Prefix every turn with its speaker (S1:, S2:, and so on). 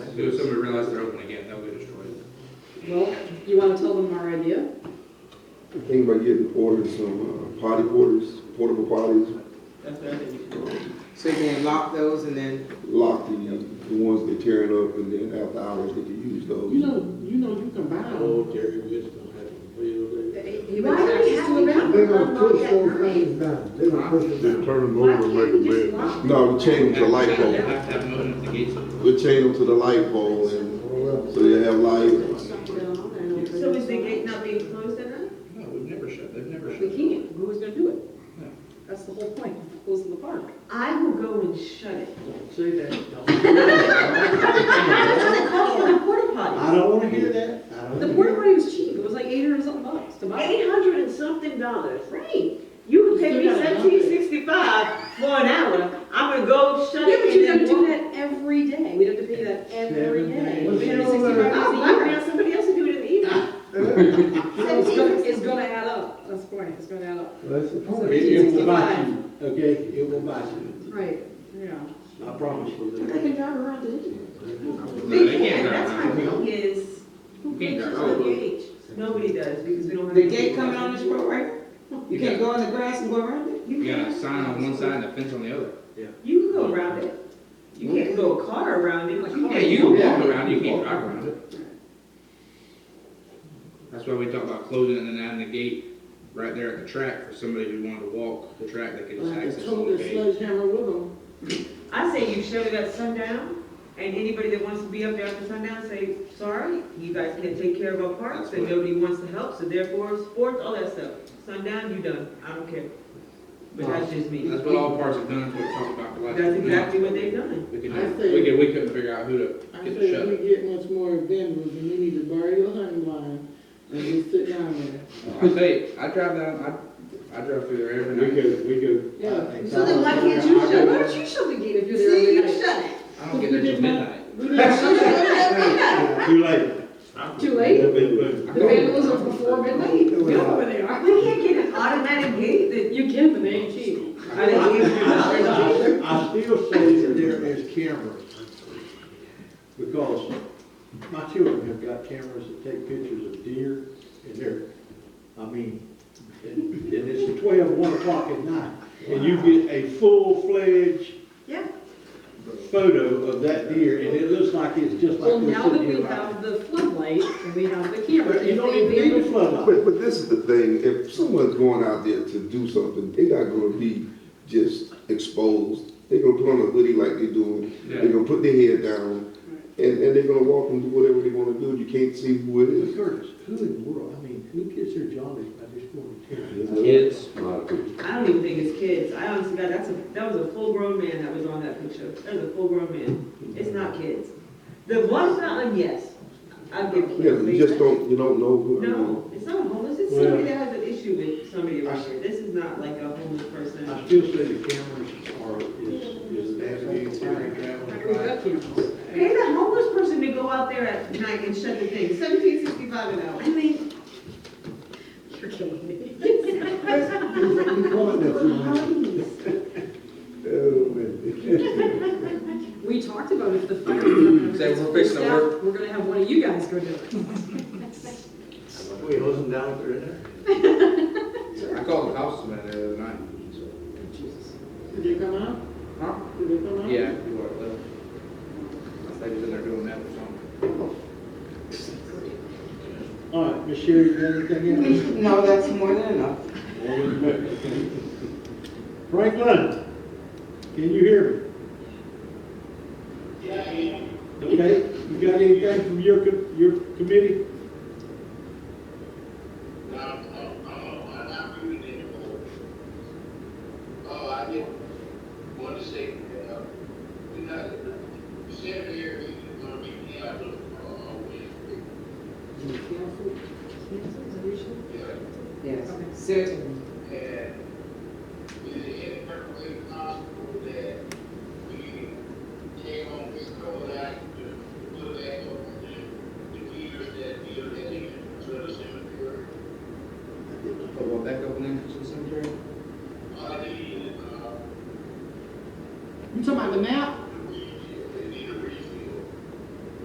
S1: So if somebody realizes they're open again, they'll get destroyed.
S2: Well, you want to tell them our idea?
S3: I think about getting porters, some uh, potty porters, portable potties,
S4: That's the other thing you should do.
S3: um,
S5: So you can lock those and then,
S3: lock the, the ones they tearing up, and then after hours they can use those.
S6: You know, you know, you can buy them.
S7: Gary Wisdom had a field there.
S2: Why do we have to have
S8: They're
S2: them
S8: gonna
S2: unlock
S8: push
S2: that
S8: those
S2: early?
S8: things down, they're gonna push it down.
S9: turn them
S2: Why
S9: over and
S2: can't we
S9: make them
S2: just
S9: bed.
S2: lock?
S3: No, we chain them to light
S1: They
S3: bulb.
S1: have to have them open up the gates.
S3: We chain them to the light pole, and
S8: Well,
S3: so they have light.
S4: So is the gate not being closed at night?
S1: No, we've never shut, they've never
S2: We
S1: shut.
S2: can't, who's gonna do
S1: No.
S2: it? That's the whole point, of closing the park.
S4: I will go and shut it.
S6: Say that.
S4: That's what they call for the porta
S6: I
S4: potty.
S6: don't wanna hear that. I don't
S2: The
S6: wanna
S2: porta
S6: hear
S2: potty was cheap, it was like eight hundred and something bucks to buy.
S4: Eight hundred and something dollars.
S2: Right.
S4: You can pay
S6: You
S4: me
S6: gotta help
S4: seventeen sixty-five for an hour. I'm gonna go shut
S2: Yeah, but
S4: it
S2: you
S4: and
S2: gotta
S4: then
S2: do
S4: walk.
S2: that every day, we'd have to pay that every
S6: Every
S2: day.
S6: day.
S2: We'd have
S8: Well,
S2: $65 a
S4: I'll I'll
S2: year.
S4: grab somebody else to do it in the evening.
S2: It's gonna, it's gonna add up, that's the point, it's gonna add up.
S8: That's the
S6: that.
S8: point.
S6: It, it will bite you, okay? It will bite you.
S2: Right. Yeah.
S6: I promise you that.
S2: drive around it.
S1: No, they
S4: They can,
S1: can't drive
S4: that's my
S1: around.
S4: thing is, who
S1: Can't
S4: pictures
S1: drive.
S4: the gate? Nobody does, because we don't have.
S5: the gate coming on this road right here? You can't go in the grass and go around it?
S4: You
S1: You got a
S4: can't.
S1: sign on one side and a fence on the other.
S4: You can go around it. You can't go a car around it. like,
S1: Yeah, you can walk around, you can't drive around it. That's why we talk about closing and then adding the gate right there at the track for somebody who wanted to walk the track, they could just
S6: Like,
S1: access
S6: it's
S1: the
S6: totally
S1: whole gate.
S6: sledgehammer with them.
S4: I say you shut it at sundown, and anybody that wants to be up there after sundown, say, sorry, you guys can't take care of our parks, and nobody wants to help, so therefore, sports, all that stuff. Sundown, you done, I don't care. But that's just me.
S1: That's what all parts have done, that's what we talked about the last.
S4: That's exactly what they've done.
S1: We could,
S6: I
S1: do-
S6: say-
S1: we could, we couldn't figure out who to
S6: I
S1: get
S6: said,
S1: to shut
S6: if
S1: it.
S6: we get much more vendors, then we need to borrow your hunting line and just sit down there.
S1: I say, I drive down, I, I drive through there every
S7: We
S1: night.
S7: could, we could.
S6: Yeah.
S2: So then why can't you shut, why don't you shut the gate if you're there every night?
S5: shut it.
S1: I don't get there till midnight.
S6: We didn't-
S7: Too late.
S2: Too late?
S7: They've been late.
S2: The vandals are before midnight?
S8: Yeah.
S2: they are.
S4: We can't get an automatic gate
S2: You can, but they ain't cheap.
S4: that, I didn't even-
S7: I still say that there is cameras, because my children have got cameras that take pictures of deer, and they're, I mean, and and it's twelve, one o'clock at night, and you get a full-fledged
S4: Yeah.
S7: photo of that deer, and it looks like it's just like.
S2: Well,
S7: we're
S2: now that
S7: sitting
S2: we
S7: here right
S2: have the floodlight and we have the
S7: now.
S2: camera,
S7: But you
S2: if
S7: don't
S2: they
S7: even need a
S2: abandon,
S7: floodlight.
S3: But, but this is the thing, if someone's going out there to do something, they're not gonna be just exposed. They're gonna put on a hoodie like they're doing,
S1: Yeah.
S3: they're gonna put their head down, and, and they're gonna walk and do whatever they wanna do, you can't see who it
S7: But
S3: is.
S7: Curtis, who in the world, I mean, who gets their jollies by just going to town?
S1: Kids.
S4: I don't even think it's kids. I honestly, God, that's a, that was a full-grown man that was on that picture. That was a full-grown man. It's not kids. The one fountain, yes, I'll give
S3: Yeah,
S4: kids.
S3: you just don't, you don't know who.
S4: No, it's not a homeless, it's somebody that has an issue with somebody around here. This is not like a homeless person.
S7: I still say the cameras are, is, is an avenue for any
S2: we've got
S7: traveling.
S2: cameras.
S4: Pay the homeless person to go out there at night and shut the thing, seventeen sixty-five an hour.
S2: I mean, you're killing me.
S7: Oh,
S2: We talked about if the fire department.
S1: Say, we're fixing to work.
S2: We're gonna have one of you guys go do it.
S7: We listen down there, isn't there?
S1: I called the cops about that the other night.
S6: Did they come out?
S1: Huh?
S6: Did they come out?
S1: Yeah, you are, though. I say he's in there doing that or something.
S6: All right, Miss Sherry, you got anything else?
S5: No, that's more than enough.
S7: Franklin, can you hear me? Okay, you got anything from your, co- your committee?
S10: Oh, I didn't want to say, uh, we're not, Senator Harry is going to be handled, uh, Wednesday. Yeah,
S5: Yes, certainly.
S10: and is it any way possible that we take on this code act to put back on the, the leaders that we are heading to the cemetery?
S1: Put one back up in there to the cemetery?
S10: I need, uh,
S6: You talking about the map?